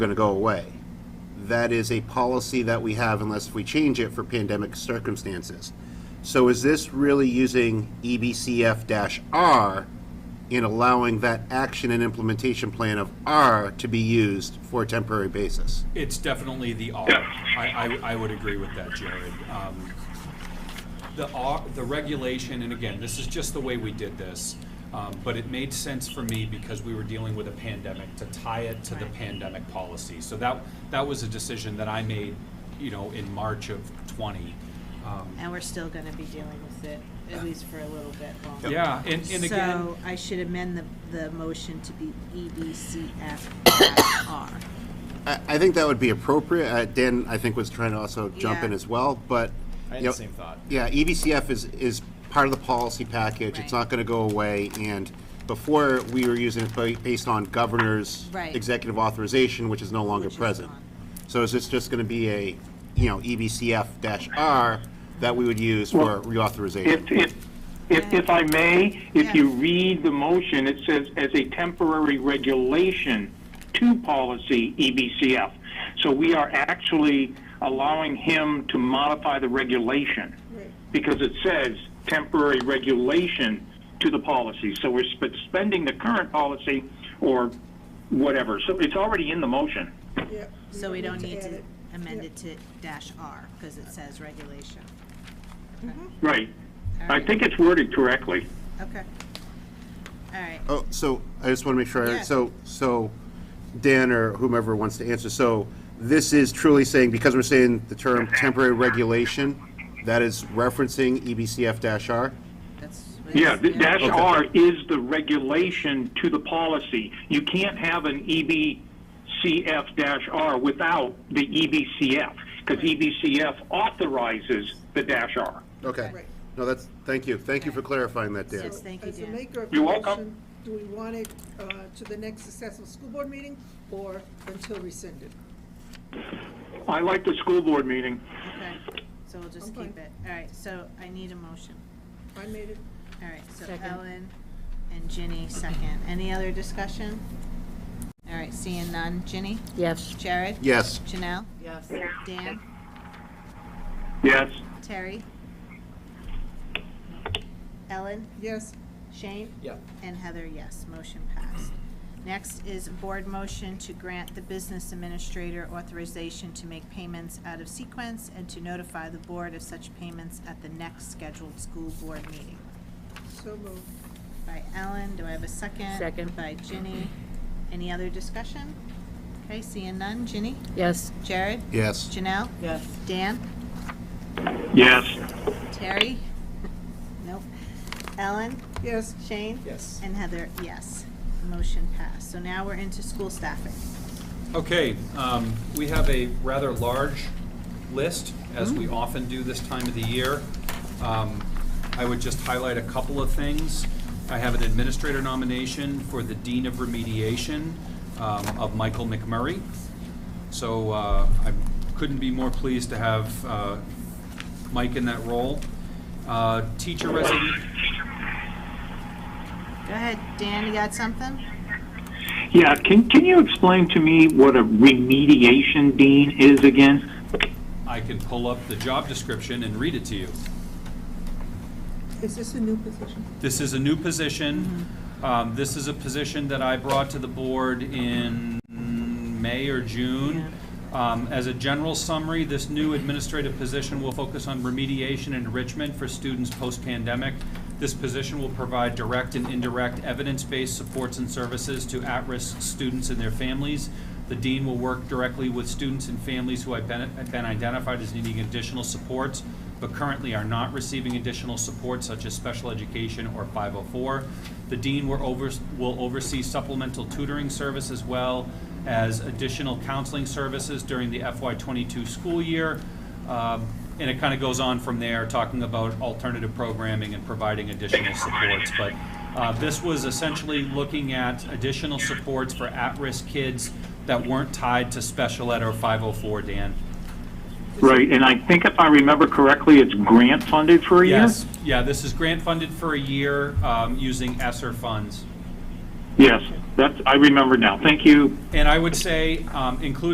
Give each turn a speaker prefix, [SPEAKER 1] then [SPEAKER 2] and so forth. [SPEAKER 1] going to go away. That is a policy that we have unless we change it for pandemic circumstances. So is this really using E EBCF-R in allowing that action and implementation plan of R to be used for a temporary basis?
[SPEAKER 2] It's definitely the R. I, I, I would agree with that, Jared. Um, The R, the regulation, and again, this is just the way we did this, um, but it made sense for me because we were dealing with a pandemic to tie it to the pandemic policy. So that, that was a decision that I made, you know, in March of twenty. Um,
[SPEAKER 3] And we're still gonna be dealing with it, at least for a little bit longer.
[SPEAKER 2] Yeah, and, and again,
[SPEAKER 3] So I should amend the, the motion to be E EBCFR.
[SPEAKER 1] I, I think that would be appropriate. Uh, Dan, I think, was trying to also jump in
[SPEAKER 3] Yeah.
[SPEAKER 1] as well, but.
[SPEAKER 4] I had
[SPEAKER 1] you know,
[SPEAKER 4] the same thought.
[SPEAKER 1] Yeah, E EBCF is, is part of the policy package. It's
[SPEAKER 3] Right.
[SPEAKER 1] not gonna go away, and before, we were using it ba- based on governor's
[SPEAKER 3] Right.
[SPEAKER 1] executive authorization, which is no longer
[SPEAKER 3] Which is
[SPEAKER 1] present.
[SPEAKER 3] gone.
[SPEAKER 1] So is this just gonna be a, you know, E EBCF dash R that we would use for
[SPEAKER 5] Well,
[SPEAKER 1] reauthorization?
[SPEAKER 5] If, if, if, if I may,
[SPEAKER 3] Yeah.
[SPEAKER 5] if you read the motion, it says as a temporary regulation to policy E EBCF. So we are actually allowing him to modify the regulation because it says temporary regulation to the policy. So we're suspending the current policy or whatever. So it's already in the motion.
[SPEAKER 6] Yeah,
[SPEAKER 3] So we don't need
[SPEAKER 6] add
[SPEAKER 3] to
[SPEAKER 6] it.
[SPEAKER 3] amend it to dash R, because it says regulation.
[SPEAKER 5] Right. I
[SPEAKER 3] Alright.
[SPEAKER 5] think it's worded correctly.
[SPEAKER 3] Okay. All right,
[SPEAKER 1] Oh, so I just want to make sure, I
[SPEAKER 3] Yeah.
[SPEAKER 1] so, so Dan or whomever wants to answer, so this is truly saying, because we're saying the term temporary regulation, that is referencing E EBCF dash R?
[SPEAKER 3] that's.
[SPEAKER 5] Yeah, the dash
[SPEAKER 1] Okay.
[SPEAKER 5] R is the regulation to the policy. You can't have an E EBCF dash R without the E EBCF, because EBCF authorizes the dash R.
[SPEAKER 1] Okay.
[SPEAKER 6] Right.
[SPEAKER 1] No, that's, thank you. Thank you for clarifying that, Dan.
[SPEAKER 3] Yes, thank you,
[SPEAKER 6] As a
[SPEAKER 3] Dan.
[SPEAKER 6] maker of
[SPEAKER 5] You're welcome.
[SPEAKER 6] correction, do we want it uh, to the next successful school board meeting or until rescinded?
[SPEAKER 5] I like the school board meeting.
[SPEAKER 3] Okay, so we'll just
[SPEAKER 6] Okay.
[SPEAKER 3] keep it. All right, so I need a motion.
[SPEAKER 6] I made it,
[SPEAKER 3] All right, so Ellen and Ginny second. Any other discussion? All right, seeing none. Ginny?
[SPEAKER 7] Yes.
[SPEAKER 3] Jared?
[SPEAKER 1] Yes,
[SPEAKER 3] Janelle? Yes. Dan?
[SPEAKER 5] Yes,
[SPEAKER 3] Terry? Ellen?
[SPEAKER 6] yes,
[SPEAKER 3] Shane?
[SPEAKER 4] Yeah.
[SPEAKER 3] And Heather, yes. Motion passed. Next is board motion to grant the business administrator authorization to make payments out of sequence and to notify the board of such payments at the next scheduled school board meeting.
[SPEAKER 6] so moved.
[SPEAKER 3] By Ellen, do I have a second?
[SPEAKER 7] Second.
[SPEAKER 3] By Ginny. Any other discussion? Okay, seeing none. Ginny?
[SPEAKER 7] Yes.
[SPEAKER 3] Jared?
[SPEAKER 1] yes.
[SPEAKER 3] Janelle?
[SPEAKER 7] Yes.
[SPEAKER 3] Dan?
[SPEAKER 5] yes,
[SPEAKER 3] Terry? Nope. Ellen?
[SPEAKER 6] Yes,
[SPEAKER 3] Shane?
[SPEAKER 4] Yes.
[SPEAKER 3] And Heather, yes. Motion passed. So now we're into school staffing.
[SPEAKER 2] okay, um, we have a rather large list, as we often do this time of the year. Um, I would just highlight a couple of things. I have an administrator nomination for the Dean of Remediation um, of Michael McMurray. So uh, I couldn't be more pleased to have uh, Mike in that role. Uh, Teacher resignation.
[SPEAKER 3] Go ahead, Dan, you got something?
[SPEAKER 5] yeah. Can, can you explain to me what a remediation dean is again?
[SPEAKER 2] I can pull up the job description and read it to you.
[SPEAKER 6] is this a new position?
[SPEAKER 2] This is a new position. Um, This is a position that I brought to the board in May or June. Um, As a general summary, this new administrative position will focus on remediation and enrichment for students post-pandemic. This position will provide direct and indirect evidence-based supports and services to at-risk students and their families. The dean will work directly with students and families who have been have been identified as needing additional supports but currently are not receiving additional support such as special education or 504. The dean will overs- will oversee supplemental tutoring service as well as additional counseling services during the FY22 school year. Um, And it kind of goes on from there, talking about alternative programming and providing additional supports. But uh, this was essentially looking at additional supports for at-risk kids that weren't tied to special ed or 504, Dan.
[SPEAKER 5] Right, and I think if I remember correctly, it's grant funded for a year?
[SPEAKER 2] Yes, yeah, this is grant funded for a year um, using ESSER funds.
[SPEAKER 8] Yes, that's, I remember now. Thank you.
[SPEAKER 5] And I would say, um, including